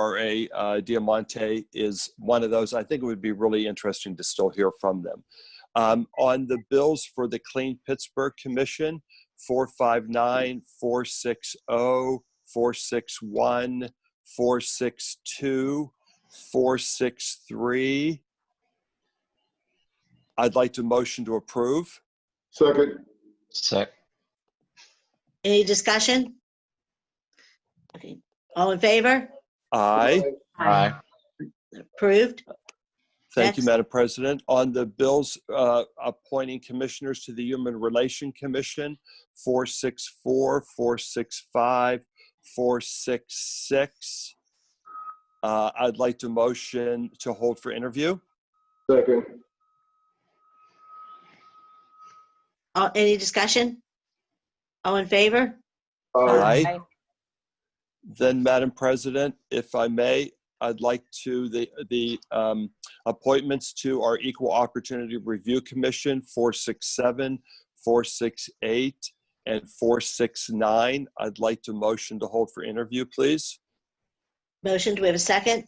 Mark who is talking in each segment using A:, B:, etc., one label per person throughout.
A: URA, uh, Diamante is one of those. I think it would be really interesting to still hear from them. Um, on the bills for the Clean Pittsburgh Commission, 459, 460, oh, 461, 462, 463. I'd like to motion to approve.
B: Second,
C: Sec,
D: Any discussion? Okay, all in favor?
A: Aye.
C: aye,
D: Approved?
A: Thank you,
D: Next.
A: Madam President. On the bills uh, appointing commissioners to the Human Relation Commission, 464, 465, 466. Uh, I'd like to motion to hold for interview.
B: second,
D: All- Any discussion? All in favor?
B: aye,
A: Aye. Then, Madam President, if I may, I'd like to, the, the um, appointments to our Equal Opportunity Review Commission, 467, 468, and 469. I'd like to motion to hold for interview, please.
D: Motion, do we have a second?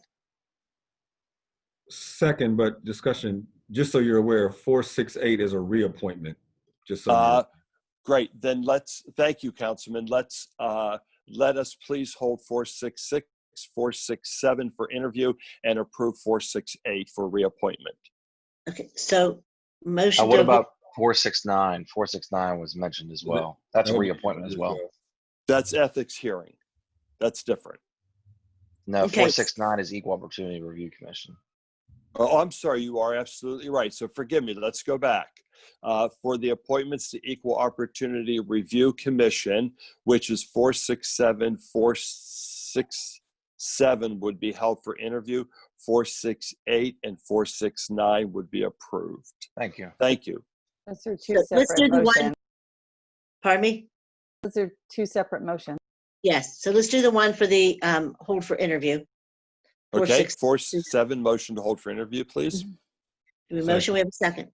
E: Second, but discussion, just so you're aware, four six eight is a reappointment. Just so.
A: Uh,
E: you're-
A: Great, then let's, thank you, Councilman. Let's, uh, let us please hold 466, 467 for interview and approve 468 for reappointment.
D: Okay, so motion.
C: Uh, what
D: to-
C: about four six nine? Four six nine was mentioned as well. That's a
E: That would be
C: reappointment as well.
A: That's ethics hearing. That's different.
C: No,
D: Okay.
C: four six nine is Equal Opportunity Review Commission.
A: Oh, I'm sorry, you are absolutely right. So forgive me. Let's go back. Uh, for the appointments to Equal Opportunity Review Commission, which is 467, 467 would be held for interview, 468 and 469 would be approved.
C: Thank you.
A: Thank you.
F: Those are two
D: Let's do
F: separate
D: the
F: motions.
D: one. Pardon me?
F: Those are two separate motions.
D: Yes, so let's do the one for the um, hold for interview.
A: Okay,
D: 467.
A: 467, motion to hold for interview, please.
D: Mm-hmm. Do we motion, we have a second?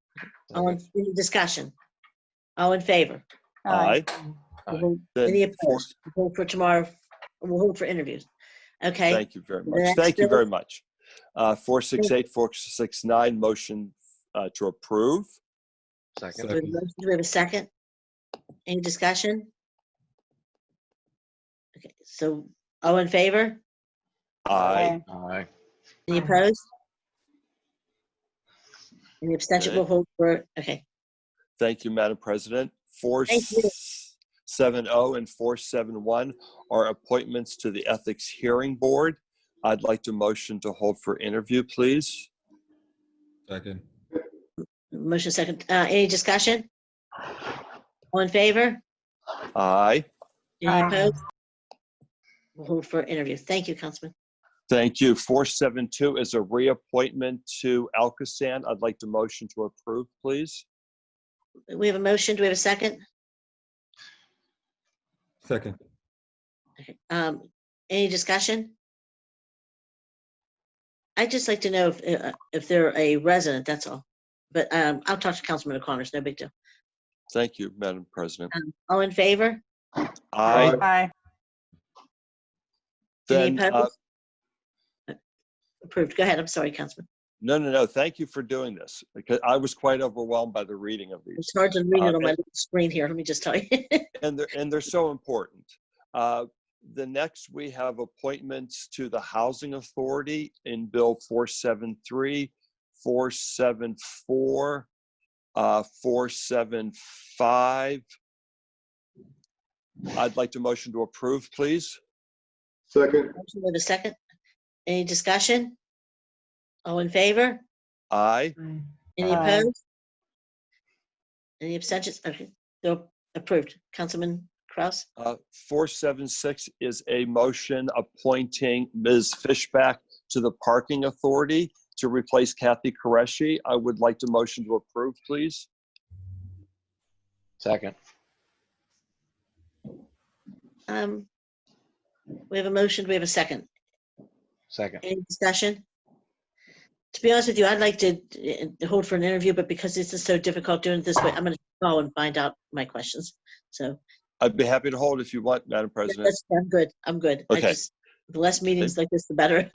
D: All in, any discussion? All in favor?
A: Aye.
C: Aye.
D: Any
A: Then four-
D: opposed? Hold for tomorrow, we'll hold for interviews. Okay,
A: Thank you very
D: The
A: much.
D: next
A: Thank you
D: bill-
A: very much. Uh, 468, 469, motion uh, to approve.
C: Second,
D: do we have a motion? Do we have a second? Any discussion? Okay, so all in favor?
A: Aye.
C: aye,
D: Any opposed? Any abstention,
A: Okay.
D: we'll hold for, okay,
A: Thank you, Madam President.
D: Thank you.
A: 470 and 471 are appointments to the Ethics Hearing Board. I'd like to motion to hold for interview, please.
E: Second,
D: motion second, uh, any discussion? All in favor?
A: Aye.
D: Any opposed? We'll hold for interviews. Thank you, Councilman.
A: Thank you. 472 is a reappointment to Alcoasand. I'd like to motion to approve, please.
D: We have a motion, do we have a second?
E: second,
D: Okay, Um, any discussion? I'd just like to know if, uh, if they're a resident, that's all. But, um, I'll talk to Councilman O'Connor, it's no big deal.
A: Thank you, Madam President.
D: Um, all in favor? Uh,
A: Aye.
F: Aye.
D: Any
A: Then, uh,
D: opposed? Uh, Approved, go ahead, I'm sorry, Councilman.
A: No, no, no. Thank you for doing this because I was quite overwhelmed by the reading of these,
D: It's hard to read
A: Uh,
D: it on my
A: and-
D: little screen here, let me just tell you.
A: and they're and they're so important. Uh, the next we have appointments to the Housing Authority in Bill 473, 474, uh, 475. I'd like to motion to approve, please.
B: second,
D: Motion With a second, any discussion? All in favor?
A: Aye.
D: Any
F: Aye.
D: opposed? Any abstentions? Okay, they're approved. Councilman Kraus?
A: Uh, 476 is a motion appointing Ms. Fishback to the Parking Authority to replace Kathy Koreshi. I would like to motion to approve, please.
C: second,
D: Um, We have a motion, we have a second.
C: second.
D: Any discussion? To be honest with you, I'd like to uh, hold for an interview, but because this is so difficult doing it this way, I'm going to call and find out my questions. So,
A: I'd be happy to hold if you want, Madam President.
D: that's- I'm good, I'm good. I
A: Okay.
D: just The less meetings like this, the better.